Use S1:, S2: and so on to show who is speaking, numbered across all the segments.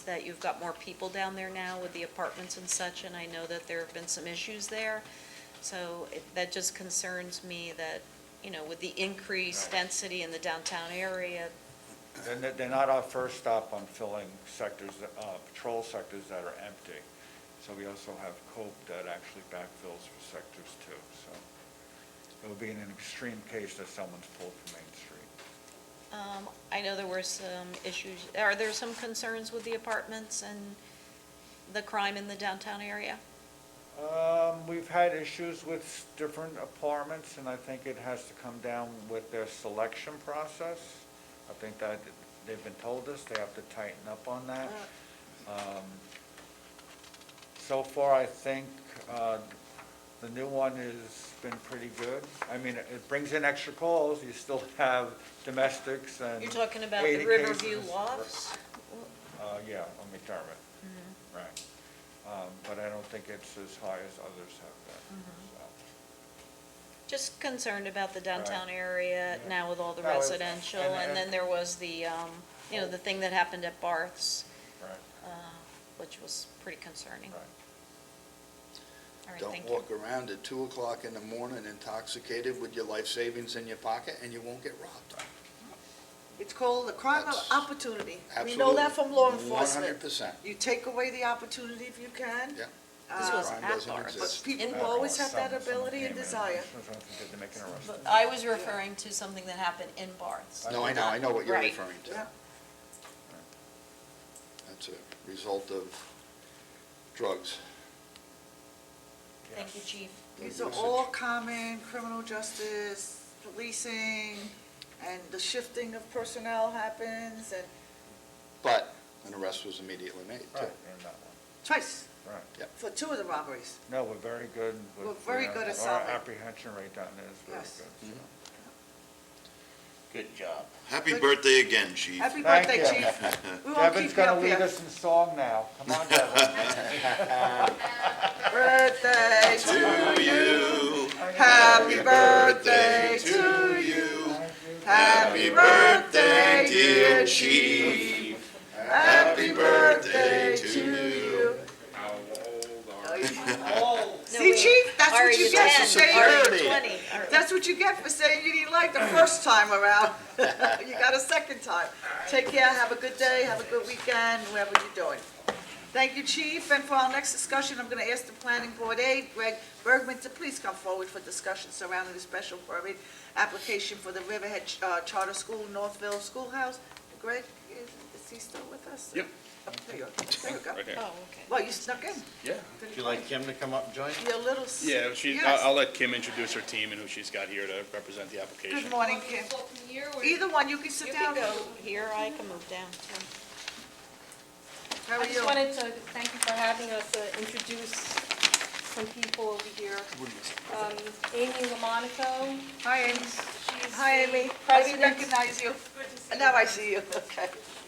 S1: that you've got more people down there now with the apartments and such, and I know that there have been some issues there. So it- that just concerns me that, you know, with the increased
S2: Right.
S1: density in the downtown area,
S2: They're, they're not our first stop on filling sectors, that- uh, patrol sectors that are empty. So we also have COPE that actually backfills for sectors too, so. It would be in an extreme case that someone's pulled from Main Street.
S1: um, I know there were some issues, are there some concerns with the apartments and the crime in the downtown area?
S2: Um, we've had issues with different apartments, and I think it has to come down with their selection process. I think that, they've been told us, they have to tighten up on
S1: Uh,
S2: that.
S1: Oh.
S2: Um, So far, I think, uh, the new one has been pretty good. I mean, it- it brings in extra calls, you still have domestics and.
S1: You're talking about the
S2: 80
S1: Riverview
S2: cases.
S1: Lofts? Mm-hmm.
S2: Uh, yeah, on McDermott, right. Um, But I don't think it's as high as others have been,
S1: Mm-hmm.
S2: so.
S1: Just concerned about the downtown area
S2: Yeah.
S1: now with all the
S2: No, it's-
S1: residential,
S2: and-
S1: and then
S2: and-
S1: there was the, um, you know, the thing that happened at Barth's,
S2: Right,
S1: uh, which was pretty concerning.
S2: right.
S1: All right,
S3: Don't
S1: thank you.
S3: walk around at two o'clock in the morning intoxicated with your life savings in your pocket and you won't get robbed.
S4: It's called the crime of
S3: That's-
S4: opportunity. We know that from law
S3: One hundred
S4: enforcement.
S3: percent.
S4: You take away the opportunity if you can.
S3: Yeah.
S1: This
S4: Uh,
S1: was
S3: crime
S1: at
S3: doesn't
S1: Barth's.
S3: exist.
S4: But people
S1: In-
S2: Uh,
S4: always have
S2: someone-
S4: that ability
S2: someone
S4: and
S2: came in
S4: desire.
S2: someone said they make an arrest.
S1: But I was referring to something that happened in Barth's.
S3: No, I know, I know what you're
S1: Right.
S3: referring to.
S4: Yeah.
S3: That's a result of drugs.
S1: Thank you, chief.
S4: These
S3: The
S4: are
S3: usage.
S4: all common criminal justice, policing, and the shifting of personnel happens and
S3: But an arrest was immediately made, too.
S2: Right, in that one,
S4: twice
S2: right.
S4: for two of the robberies.
S2: No, we're very good with.
S4: We're very
S2: uh,
S4: good at
S2: Our
S4: solving.
S2: apprehension rate down there is very
S4: Yes.
S2: good. so.
S5: Mm-hmm. Good job. Happy
S4: Good-
S5: birthday again, Chief.
S4: Happy
S2: Thank
S4: birthday,
S2: you.
S4: chief. We won't
S2: Devin's
S4: keep you
S2: gonna
S4: up
S2: lead
S4: here.
S2: us in song now. Come on, Devin.
S4: Birthday to you. Happy birthday to you. Happy birthday, dear chief. Happy birthday to you.
S1: No,
S4: See,
S1: wait.
S4: chief, that's
S1: Ari,
S4: what you
S1: you're
S4: get for
S1: 10. Ari,
S4: saying,
S1: you're 20. All right.
S4: that's what you get for saying you didn't like the first time around. You got a second time. Take care, have a good day, have a good weekend, whatever you're doing. Thank you, chief, and for our next discussion, I'm gonna ask the planning board aide, Greg Bergman, to please come forward for discussion surrounding the special permit application for the Riverhead uh, Charter School, Northville Schoolhouse. Greg, is is he still with us?
S6: Yep.
S4: Oh, There you go, there you go.
S1: Oh, okay.
S4: Well, you snuck in.
S6: Yeah.
S5: Would you like Kim to come up and join?
S4: You're a little. s-
S6: Yeah, she,
S4: Yes.
S6: I'll, I'll let Kim introduce her team and who she's got here to represent the application.
S4: Good morning, Kim. Either one, you can sit
S1: You
S4: down.
S1: can go here, I can move down. too.
S4: How are
S7: I just
S4: you?
S7: wanted to thank you for having us uh, introduce some people over here. Um, Amy LaMonaco,
S4: Hi, Amy.
S7: she's
S4: Hi, Amy.
S7: the
S4: I didn't
S7: president,
S4: recognize you. Now I see you, okay.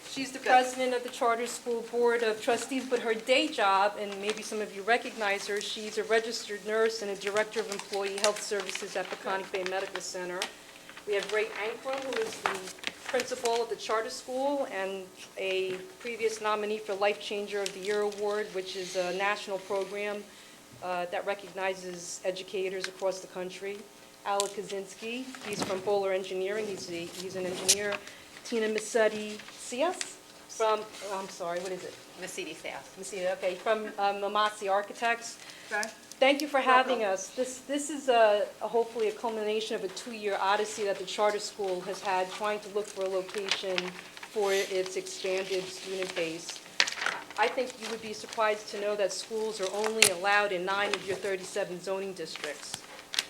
S7: she's the
S4: Good.
S7: president of the Charter School Board of Trustees, but her day job, and maybe some of you recognize her, she's a registered nurse and a director of employee health services at Peconic Bay Medical Center. We have Ray Ankrum, who is the principal of the charter school and a previous nominee for Life Changer of the Year Award, which is a national program uh, that recognizes educators across the country. Alec Kaczynski, he's from Bowler Engineering, he's, the- he's an engineer. Tina Massetti Cias from, oh, I'm sorry, what is it?
S1: Mercedes South.
S7: Massetti, okay, from um, Mamasi Architects.
S4: Okay.
S7: Thank you for having
S4: Welcome.
S7: us. This, this is a, a hopefully a culmination of a two-year odyssey that the charter school has had trying to look for a location for its expanded student base. I think you would be surprised to know that schools are only allowed in nine of your 37 zoning districts.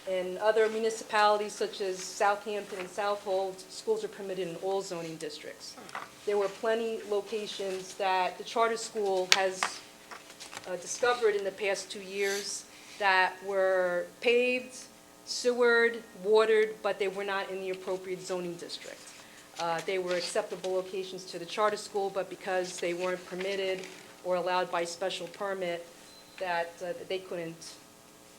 S7: In other municipalities such as Southampton and Southold, schools are permitted in all zoning districts. There were plenty locations that the charter school has uh, discovered in the past two years that were paved, sewered, watered, but they were not in the appropriate zoning district. Uh, They were acceptable locations to the charter school, but because they weren't permitted or allowed by special permit, that uh, they couldn't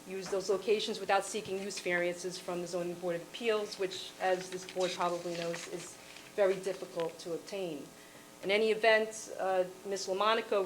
S7: use those locations without seeking use variances from the zoning board of appeals, which, as this board probably knows, is very difficult to obtain. In any event, uh, Ms. LaMonaco